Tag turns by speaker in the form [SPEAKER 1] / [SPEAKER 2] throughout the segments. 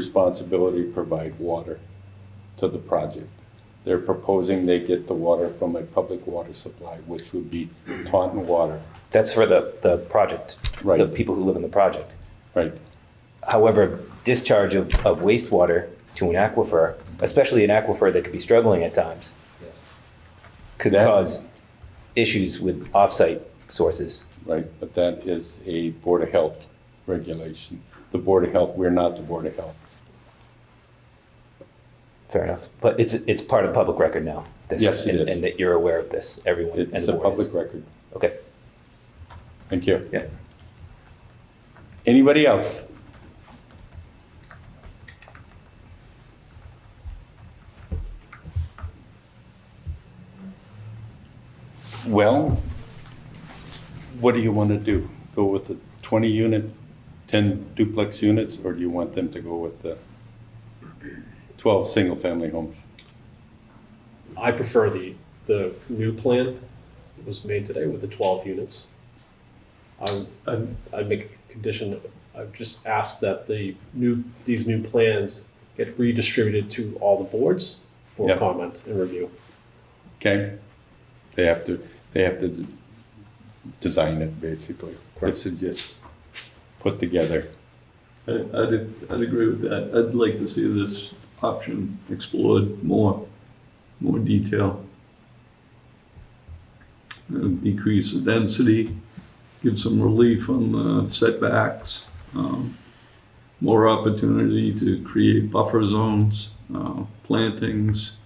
[SPEAKER 1] responsibility to provide water to the project. They're proposing they get the water from a public water supply, which would be Taunton Water,
[SPEAKER 2] That's for the, the project,
[SPEAKER 1] Right.
[SPEAKER 2] the people who live in the project.
[SPEAKER 1] right?
[SPEAKER 2] However, discharge of, of wastewater to an aquifer, especially an aquifer that could be struggling at times, could
[SPEAKER 1] That-
[SPEAKER 2] cause issues with offsite sources.
[SPEAKER 1] Right, but that is a Board of Health regulation. The Board of Health, we're not the Board of Health.
[SPEAKER 2] Fair enough. But it's, it's part of public record now. this,
[SPEAKER 1] Yes, it
[SPEAKER 2] and-
[SPEAKER 1] is.
[SPEAKER 2] And that you're aware of this, everyone. and
[SPEAKER 1] It's
[SPEAKER 2] the
[SPEAKER 1] a
[SPEAKER 2] board is.
[SPEAKER 1] public record.
[SPEAKER 2] Okay.
[SPEAKER 1] Thank you.
[SPEAKER 2] Yeah.
[SPEAKER 1] Anybody else? Well, what do you want to do? Go with the 20 unit, 10 duplex units, or do you want them to go with the 12 single family homes?
[SPEAKER 3] I prefer the, the new plan that was made today with the twelve units. I, I'd, I'd make a condition, I've just asked that the new, these new plans get redistributed to all the boards for
[SPEAKER 1] Yeah.
[SPEAKER 3] comment and review.
[SPEAKER 1] Okay? They have to, they have to d- design it basically. This is just put together.
[SPEAKER 4] I- I'd, I'd agree with that. I'd like to see this option explored more, more detail. Uh, Decrease the density, give some relief on the setbacks, um, more opportunity to create buffer zones, uh, plantings.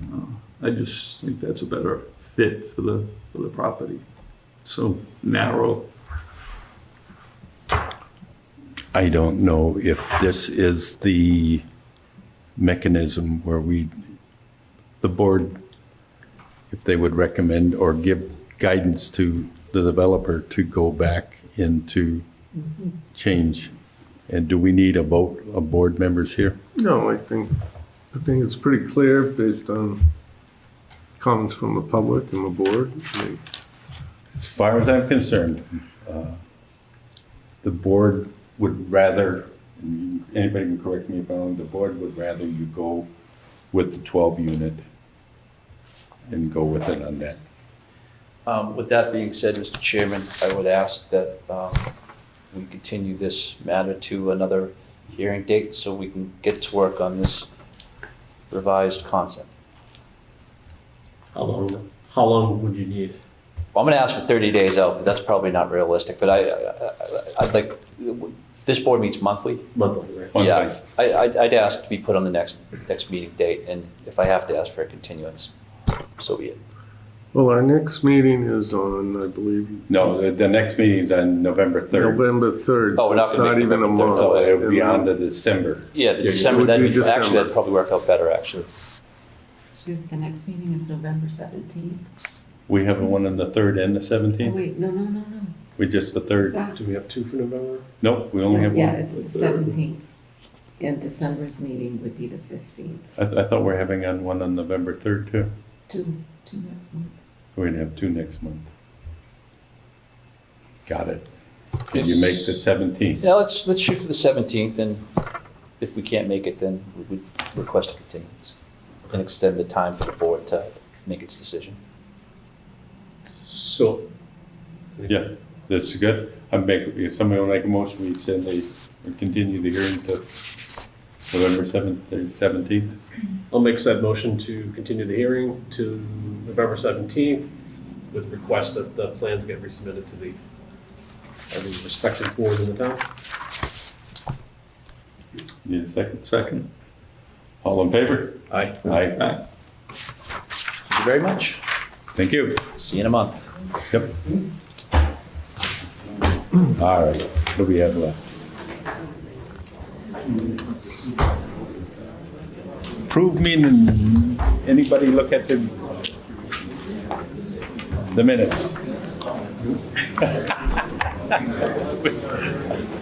[SPEAKER 4] Uh, I just think that's a better fit for the, for the property. So narrow.
[SPEAKER 1] I don't know if this is the mechanism where we, the board, if they would recommend or give guidance to the developer to go back into change. And do we need a vote of board members here?
[SPEAKER 5] No, I think, I think it's pretty clear based on comments from the public and the board. I mean,
[SPEAKER 1] As far as I'm concerned, uh, the board would rather, and you- anybody can correct me if I'm wrong, the board would rather you go with the 12 unit and go with it on that.
[SPEAKER 6] Um, With that being said, Mr. Chairman, I would ask that um, we continue this matter to another hearing date so we can get to work on this revised concept.
[SPEAKER 3] How long, how long would you need?
[SPEAKER 6] Well, I'm going to ask for 30 days out, but that's probably not realistic, but I, I- I- I'd like, this board meets monthly.
[SPEAKER 3] Monthly, right?
[SPEAKER 1] One
[SPEAKER 6] Yeah,
[SPEAKER 1] thing.
[SPEAKER 6] I- I'd I'd ask to be put on the next, next meeting date, and if I have to ask for a continuance, so be it.
[SPEAKER 5] Well, our next meeting is on, I believe,
[SPEAKER 1] No, the, the next meeting's on November 3rd,
[SPEAKER 5] November 3rd.
[SPEAKER 6] Oh,
[SPEAKER 5] so
[SPEAKER 6] we're not
[SPEAKER 5] It's
[SPEAKER 6] gonna
[SPEAKER 5] not
[SPEAKER 6] make
[SPEAKER 5] even a
[SPEAKER 6] November
[SPEAKER 5] month.
[SPEAKER 6] 3rd,
[SPEAKER 1] so it would be
[SPEAKER 5] And
[SPEAKER 1] on to December.
[SPEAKER 6] Yeah, the
[SPEAKER 1] Yeah,
[SPEAKER 6] December,
[SPEAKER 5] would
[SPEAKER 6] that'd
[SPEAKER 5] be
[SPEAKER 6] be, actually,
[SPEAKER 5] December.
[SPEAKER 6] that'd probably work out better, actually.
[SPEAKER 7] So the next meeting is November seventeenth.
[SPEAKER 1] We have one on the 3rd and the
[SPEAKER 7] Oh,
[SPEAKER 1] 17th?
[SPEAKER 7] wait, no, no, no, no.
[SPEAKER 1] We just the
[SPEAKER 7] It's
[SPEAKER 1] 3rd?
[SPEAKER 7] that-
[SPEAKER 3] Do we have two for November?
[SPEAKER 1] Nope, we only have
[SPEAKER 7] Yeah,
[SPEAKER 1] one.
[SPEAKER 7] it's the seventeenth. And December's meeting would be the fifteenth,
[SPEAKER 1] I, th- I thought we we're having on one on November 3rd too.
[SPEAKER 7] two, two next month.
[SPEAKER 1] We're gonna have two next month. Got it. Can you make the 17th?
[SPEAKER 6] Yeah, let's, let's shoot for the 17th, and if we can't make it, then we would request a continuance and extend the time for the board to make its decision.
[SPEAKER 3] So.
[SPEAKER 1] Yeah, that's good. I make, if somebody will make a motion, we extend the, we continue the hearing to November seventh, seventeenth.
[SPEAKER 3] I'll make said motion to continue the hearing to November 17th with request that the plans get resubmitted to the, uh, the respective boards in the town.
[SPEAKER 1] Need a second?
[SPEAKER 4] Second.
[SPEAKER 1] All in favor?
[SPEAKER 3] Aye.
[SPEAKER 1] Aye.
[SPEAKER 4] Aye.
[SPEAKER 6] Thank you very much.
[SPEAKER 1] Thank you.
[SPEAKER 6] See you in a month.
[SPEAKER 1] Yep. All right, what do we have left? Prove me, and anybody look at the, the minutes?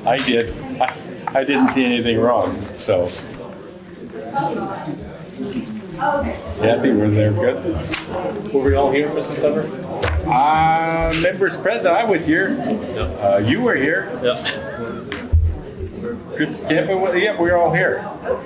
[SPEAKER 1] I did, I, I didn't see anything wrong, so. Kathy, were there good?
[SPEAKER 3] Were we all here for September?
[SPEAKER 1] Uh, members present, I was here. Uh, you were here.
[SPEAKER 3] Yeah.
[SPEAKER 1] Just give it, yeah, we're all here.